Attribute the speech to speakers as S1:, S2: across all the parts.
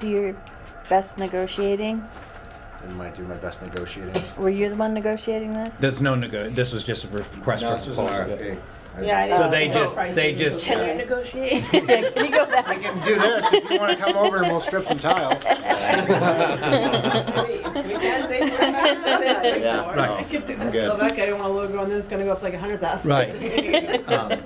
S1: do your best negotiating?
S2: and might do my best negotiating.
S1: Were you the one negotiating this?
S3: There's no nego, this was just a request
S2: No, this
S3: for
S2: is an
S3: proposal.
S2: RFP. I-
S4: Yeah, I didn't.
S3: So they
S4: know
S3: just-
S4: prices
S3: they
S4: and
S3: just-
S4: stuff.
S1: Can you negotiate? Can you go
S2: We
S1: back?
S2: can do this, if you wanna come over and we'll strip some tiles.
S4: Wait, We can say forty-five percent, I think,
S5: Yeah.
S4: more.
S2: Right.
S4: I could do that.
S2: I'm good.
S4: Rebecca, I don't wanna load on this, it's gonna go up to like a hundred thousand.
S3: Right. Um,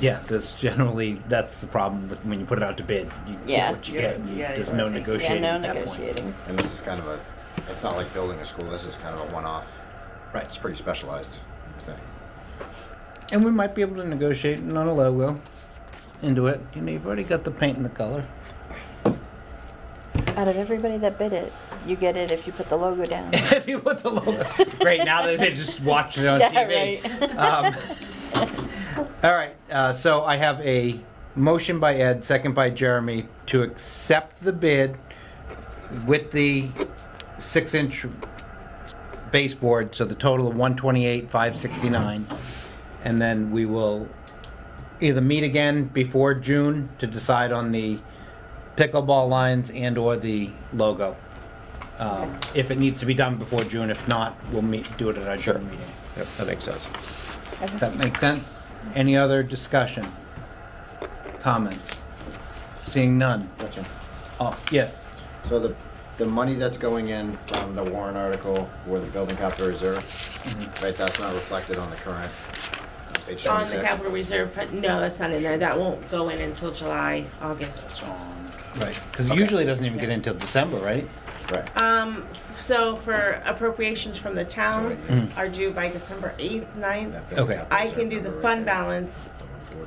S3: Yeah, that's generally, that's the problem with, when you put it out to bid, you
S1: Yeah.
S3: get what you
S4: Yeah,
S3: get, and you-
S4: yeah,
S3: there's
S4: you're
S3: no
S4: right. Yeah,
S1: Yeah,
S3: negotiating
S1: no
S3: at that point.
S1: negotiating.
S2: And this is kind of a, it's not like building a school, this is kind of a one-off, it's
S3: Right,
S2: pretty specialized thing.
S3: and we might be able to negotiate on a logo into it, you know, you've already got the paint and the color.
S1: Out of everybody that bid it, you get it if you put the logo down.
S3: If you put the logo, great, now that they just watch it on
S1: Yeah,
S3: TV. Um, All right, uh, so I have a motion by Ed, second by Jeremy, to accept the bid with the six-inch baseboard, so the total of one twenty-eight, five sixty-nine. And then we will either meet again before June to decide on the pickleball lines and/or the logo. Um, If it needs to be done before June, if not, we'll meet, do it at our June meeting.
S5: Yep, that makes sense.
S3: That makes sense? Any other discussion? Comments? Seeing none?
S2: Gotcha.
S3: Oh, yes.
S2: So the, the money that's going in from the Warren article for the building capital reserve, right, that's not reflected on the current, uh, page twenty-six?
S4: Mm-hmm. On the capital reserve, fund- no, that's not in there, that won't go in until July, August.
S3: Right, because usually it doesn't even get in till December, right?
S2: Right.
S4: Um, f- so for appropriations from the town
S2: Sorry.
S4: are due by December eighth, ninth.
S2: That building
S3: Okay.
S2: capital
S4: I can
S2: reserve
S4: do the
S2: number
S4: fund
S2: right there.
S4: balance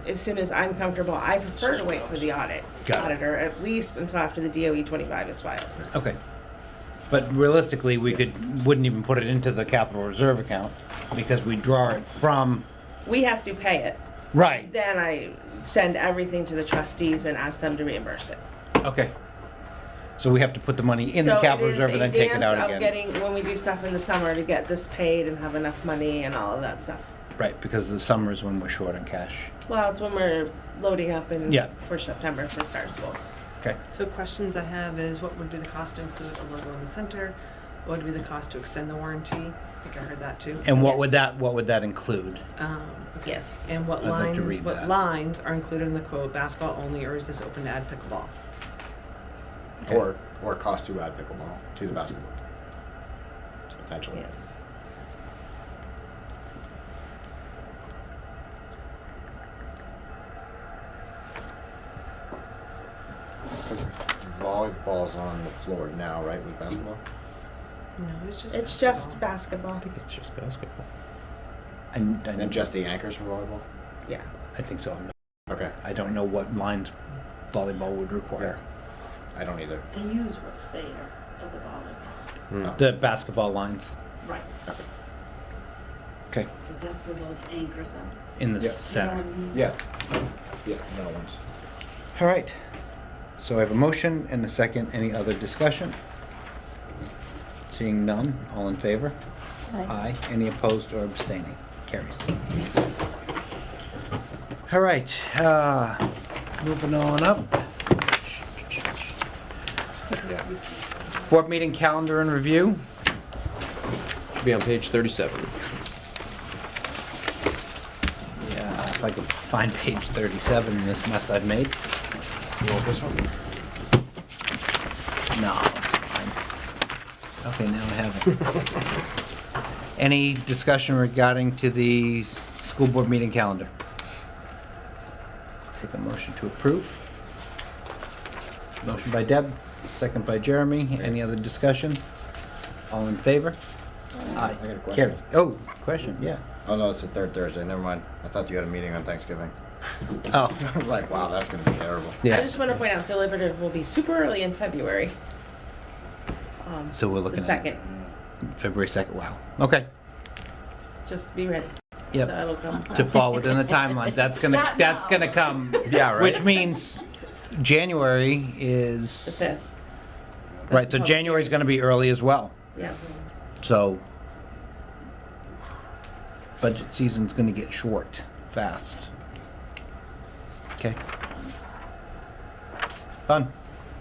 S4: as soon as I'm comfortable. I prefer to wait for the audit,
S3: Got it.
S4: auditor, at least until after the DOE twenty-five is filed.
S3: Okay. But realistically, we could, wouldn't even put it into the capital reserve account because we draw it from,
S4: We have to pay it.
S3: right,
S4: Then I send everything to the trustees and ask them to reimburse it.
S3: okay. So we have to put the money in the
S4: So
S3: capital
S4: it is
S3: reserve and
S4: a
S3: then take it
S4: dance
S3: out
S4: of
S3: again.
S4: Getting, when we do stuff in the summer to get this paid and have enough money and all of that stuff.
S3: Right, because the summer is when we're short on cash.
S4: Well, it's when we're loading up in,
S3: Yeah.
S4: for September for start school.
S3: Okay.
S6: So questions I have is what would be the cost to include a logo in the center? What would be the cost to extend the warranty? I think I heard that too.
S3: And what would that, what would that include?
S6: Um,
S4: Yes.
S6: and what
S3: I'd like to
S6: lines,
S3: read
S6: what
S3: that.
S6: lines are included in the quote, basketball only, or is this open to add pickleball?
S4: Uh,
S2: Or, or cost to add pickleball to the basketball. Potentially.
S4: Yes.
S2: Volleyball's on the floor now, right, with basketball?
S6: No, it's just.
S4: It's just basketball.
S5: I think it's just basketball.
S3: And,
S2: And then just the anchors for volleyball?
S4: Yeah.
S3: I think so. I'm not-
S2: Okay,
S3: I don't know what lines volleyball would
S2: yeah.
S3: require.
S2: I don't either. Oh.
S7: They use what's there for the volleyball.
S3: The basketball lines.
S7: Right.
S3: Okay.
S7: Because that's where those anchors are.
S3: In the
S2: Yeah.
S3: center.
S2: Yeah. Yeah, metal ones.
S3: All right. So I have a motion and a second. Any other discussion? Seeing none, all in favor? Aye. Any opposed or abstaining? Carries. All right, uh, moving on up.
S2: Yeah.
S3: Board meeting calendar and review.
S5: Should be on page 37.
S3: Yeah, if I could find page 37 in this mess I've made.
S2: You want this one?
S3: No. I'm- Okay, now I have it. Any discussion regarding to the s- school board meeting calendar? Take a motion to approve. Motion by Deb, second by Jeremy. Any other discussion? All in favor? Aye.
S2: I got a question.
S3: Carried. Oh, question, yeah.
S2: Oh, no, it's the third Thursday, never mind. I thought you had a meeting on Thanksgiving.
S3: Oh,
S2: I was like, wow, that's gonna be terrible.
S4: I just want to point out deliberative will be super early in February. Um,
S3: so we're
S4: the
S3: looking at
S4: second,
S3: February 2nd, wow. Okay,
S4: just be ready.
S3: yep.
S4: So it'll come.
S3: to fall within the timeline. That's gonna,
S7: Stop
S3: that's
S7: now.
S3: gonna come.
S5: Yeah, right.
S3: Which means January
S4: The
S3: is,
S4: fifth.
S3: right, so
S4: That's-
S3: January's gonna be early as well,
S4: Yeah.
S3: so. Budget season's gonna get short, fast. Okay. Done.